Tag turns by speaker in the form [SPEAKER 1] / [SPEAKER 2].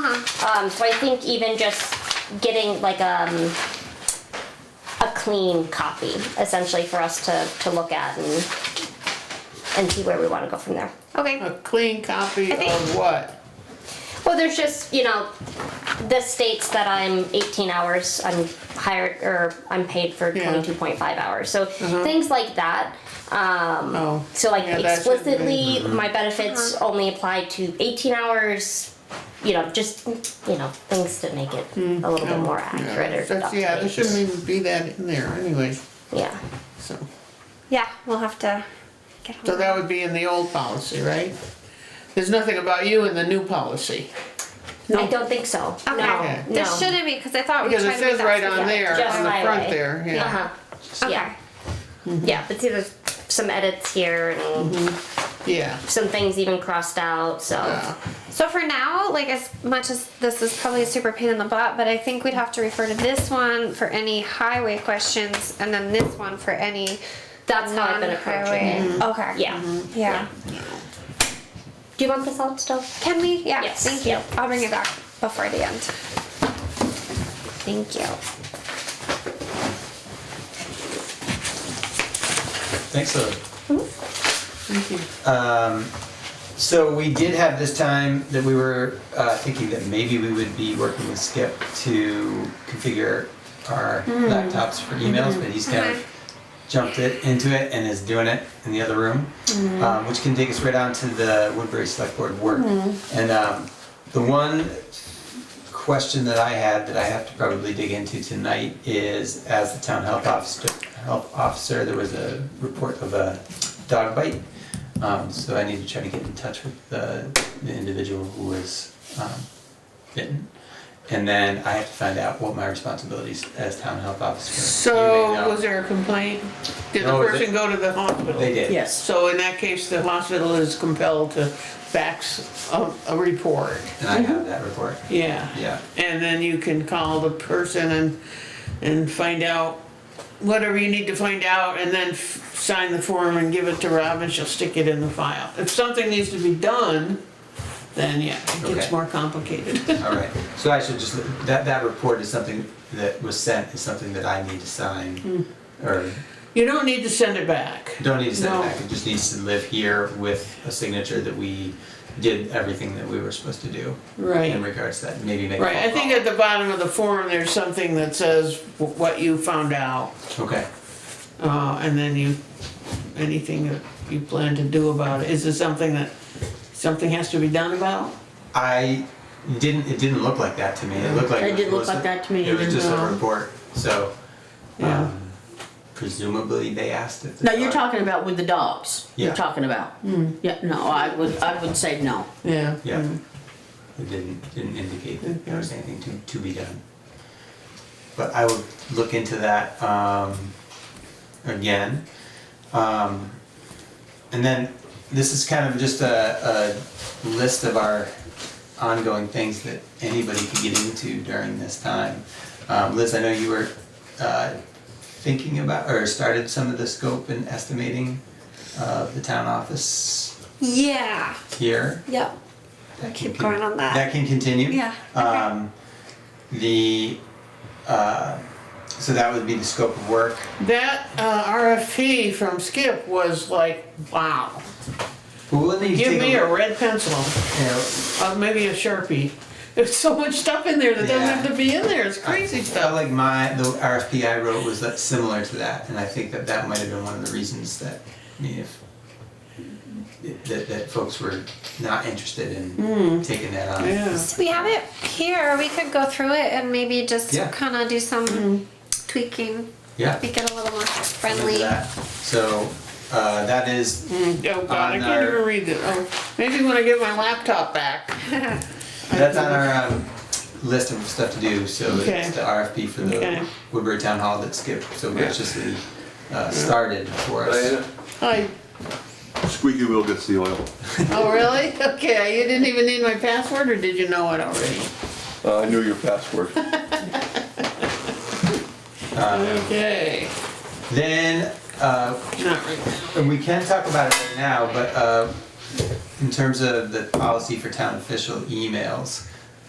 [SPEAKER 1] Uh-huh. Um, so I think even just getting like um, a clean copy, essentially, for us to, to look at and and see where we want to go from there.
[SPEAKER 2] Okay,
[SPEAKER 3] A clean copy
[SPEAKER 2] I think-
[SPEAKER 3] of what?
[SPEAKER 1] Well, there's just, you know, this states that I'm 18 hours, I'm hired, or I'm paid for
[SPEAKER 3] Yeah.
[SPEAKER 1] 22.5 hours. So things like that. Um,
[SPEAKER 3] Oh.
[SPEAKER 1] so like
[SPEAKER 3] yeah, that shouldn't be. Mm-hmm. Uh-huh.
[SPEAKER 1] explicitly, my benefits only apply to 18 hours. You know, just you know, things to make it a little bit more
[SPEAKER 3] Mm, Oh. Yeah,
[SPEAKER 1] accurate or
[SPEAKER 3] that's-
[SPEAKER 1] up to
[SPEAKER 3] Yeah, there
[SPEAKER 1] date.
[SPEAKER 3] shouldn't even be that in there anyways,
[SPEAKER 1] yeah.
[SPEAKER 3] so.
[SPEAKER 2] yeah, we'll have to get
[SPEAKER 3] So
[SPEAKER 2] hold
[SPEAKER 3] that
[SPEAKER 2] of
[SPEAKER 3] would be in the old policy, right? There's nothing about you in the new policy.
[SPEAKER 1] I don't think so.
[SPEAKER 2] Okay.
[SPEAKER 1] No,
[SPEAKER 3] Okay.
[SPEAKER 1] no.
[SPEAKER 2] There shouldn't be, because I thought we
[SPEAKER 3] Because
[SPEAKER 2] tried
[SPEAKER 3] it
[SPEAKER 2] to make
[SPEAKER 3] says right
[SPEAKER 2] that.
[SPEAKER 3] on there,
[SPEAKER 1] Just
[SPEAKER 3] on the front
[SPEAKER 1] highway.
[SPEAKER 3] there,
[SPEAKER 1] Uh
[SPEAKER 3] yeah.
[SPEAKER 1] huh.
[SPEAKER 2] Okay.
[SPEAKER 1] Yeah. Mm-hmm. Yeah, but see, there's some edits here and.
[SPEAKER 3] Yeah,
[SPEAKER 1] some things even crossed out. So
[SPEAKER 3] yeah.
[SPEAKER 2] So for now, like as much as this is probably a super pain in the butt, but I think we'd have to refer to this one for any highway questions and then this one for any
[SPEAKER 1] that's how I've been approaching it.
[SPEAKER 3] Mm-hmm.
[SPEAKER 2] non-highway. Okay.
[SPEAKER 1] Yeah.
[SPEAKER 2] Yeah.
[SPEAKER 1] Do you want this out still?
[SPEAKER 2] Can we? Yeah,
[SPEAKER 1] Yes.
[SPEAKER 2] thank you.
[SPEAKER 1] Yep.
[SPEAKER 2] I'll bring it back before the end.
[SPEAKER 1] Thank you.
[SPEAKER 4] Thanks, Lily.
[SPEAKER 3] Thank you.
[SPEAKER 4] Um, so we did have this time that we were uh, thinking that maybe we would be working with Skip to configure our
[SPEAKER 3] Hmm.
[SPEAKER 4] laptops for emails, but he's kind
[SPEAKER 2] Mhm.
[SPEAKER 4] of jumped it into it and is doing it in the other room,
[SPEAKER 3] Hmm.
[SPEAKER 4] um, which can take us right on to the Woodbury Select Board work.
[SPEAKER 3] Hmm.
[SPEAKER 4] And um, the one question that I had that I have to probably dig into tonight is, as the town health officer, health officer, there was a report of a dog bite. Um, so I need to try to get in touch with the, the individual who was, um, bitten. And then I have to find out what my responsibilities as town health officer. You may
[SPEAKER 3] So
[SPEAKER 4] know.
[SPEAKER 3] was there a complaint? Did the
[SPEAKER 4] No, they-
[SPEAKER 3] person go to the hospital?
[SPEAKER 4] They did.
[SPEAKER 5] Yes.
[SPEAKER 3] So in that case, the hospital is compelled to fax a, a report,
[SPEAKER 4] And I
[SPEAKER 3] Mm-hmm.
[SPEAKER 4] have that report.
[SPEAKER 3] yeah.
[SPEAKER 4] Yeah.
[SPEAKER 3] And then you can call the person and, and find out whatever you need to find out and then f- sign the form and give it to Rob and she'll stick it in the file. If something needs to be done, then yeah, it gets
[SPEAKER 4] Okay.
[SPEAKER 3] more complicated.
[SPEAKER 4] All right. So I should just, that, that report is something that was sent, is something that I need
[SPEAKER 3] Mm.
[SPEAKER 4] to sign. Or
[SPEAKER 3] You don't need to send it back.
[SPEAKER 4] don't need to send
[SPEAKER 3] No.
[SPEAKER 4] it back. It just needs to live here with a signature that we did everything that we were supposed to do in
[SPEAKER 3] Right,
[SPEAKER 4] regards to that. Maybe make a
[SPEAKER 3] right. I
[SPEAKER 4] phone
[SPEAKER 3] think
[SPEAKER 4] call.
[SPEAKER 3] at the bottom of the form, there's something that says wh- what you found out.
[SPEAKER 4] Okay.
[SPEAKER 3] Uh, and then you, anything that you plan to do about it, is it something that, something has to be done about?
[SPEAKER 4] I didn't, it didn't look like that to me. It looked like.
[SPEAKER 5] It didn't look
[SPEAKER 4] was
[SPEAKER 5] like
[SPEAKER 4] a-
[SPEAKER 5] that to me
[SPEAKER 4] It was
[SPEAKER 5] either,
[SPEAKER 4] just a
[SPEAKER 3] no.
[SPEAKER 4] report, so.
[SPEAKER 3] Yeah.
[SPEAKER 4] um, Presumably they asked if. the
[SPEAKER 5] No, you're
[SPEAKER 4] dog-
[SPEAKER 5] talking about with the dogs.
[SPEAKER 4] Yeah.
[SPEAKER 5] You're talking about. Yeah, no, I would, I would say no.
[SPEAKER 3] Yeah. Mm.
[SPEAKER 4] Yeah. It didn't, didn't indicate that there was anything to, to be done. But I would look into that, um, again. Um, and then this is kind of just a, a list of our ongoing things that anybody could get into during this time. Um, Liz, I know you were, uh, thinking about, or started some of the scope and estimating, uh, the town office
[SPEAKER 2] Yeah.
[SPEAKER 4] here.
[SPEAKER 2] Yep.
[SPEAKER 4] That
[SPEAKER 2] Keep
[SPEAKER 4] can-
[SPEAKER 2] going on that.
[SPEAKER 4] That can continue.
[SPEAKER 2] Yeah, okay.
[SPEAKER 4] Um, the, uh, so that would be the scope of work.
[SPEAKER 3] That uh, RFP from Skip was like, wow.
[SPEAKER 4] Well, let me
[SPEAKER 3] Give
[SPEAKER 4] take
[SPEAKER 3] me a
[SPEAKER 4] look.
[SPEAKER 3] red pencil,
[SPEAKER 4] You know,
[SPEAKER 3] uh, maybe a Sharpie. There's so much stuff in there that doesn't have to be in there, it's crazy
[SPEAKER 4] I felt
[SPEAKER 3] stuff.
[SPEAKER 4] like my, the RFP I wrote was that similar to that, and I think that that might have been one of the reasons that, I mean, if, that, that folks were not interested in taking that on.
[SPEAKER 3] Hmm. Yeah.
[SPEAKER 2] So we have it here. We could go through it and maybe just
[SPEAKER 4] Yeah.
[SPEAKER 2] kind of do some tweaking.
[SPEAKER 4] Yeah.
[SPEAKER 2] Make it a little more
[SPEAKER 4] Look at
[SPEAKER 2] friendly.
[SPEAKER 4] that. So, uh, that is,
[SPEAKER 3] Oh god, I
[SPEAKER 4] On
[SPEAKER 3] can't even
[SPEAKER 4] our-
[SPEAKER 3] read it. Oh, Maybe when I get my laptop back.
[SPEAKER 4] That's on our um, list of stuff to do, so
[SPEAKER 3] Okay.
[SPEAKER 4] it's the RFP for
[SPEAKER 3] Okay.
[SPEAKER 4] the Woodbury Town Hall that Skip so graciously uh, started for us.
[SPEAKER 6] Diana,
[SPEAKER 3] Hi.
[SPEAKER 6] squeaky wheel gets the oil.
[SPEAKER 3] Oh, really? Okay, you didn't even need my password, or did you know it already?
[SPEAKER 6] Uh, I knew your password.
[SPEAKER 3] Okay,
[SPEAKER 4] Then, uh,
[SPEAKER 3] not right now.
[SPEAKER 4] and we can talk about it right now, but uh, in terms of the policy for town official emails,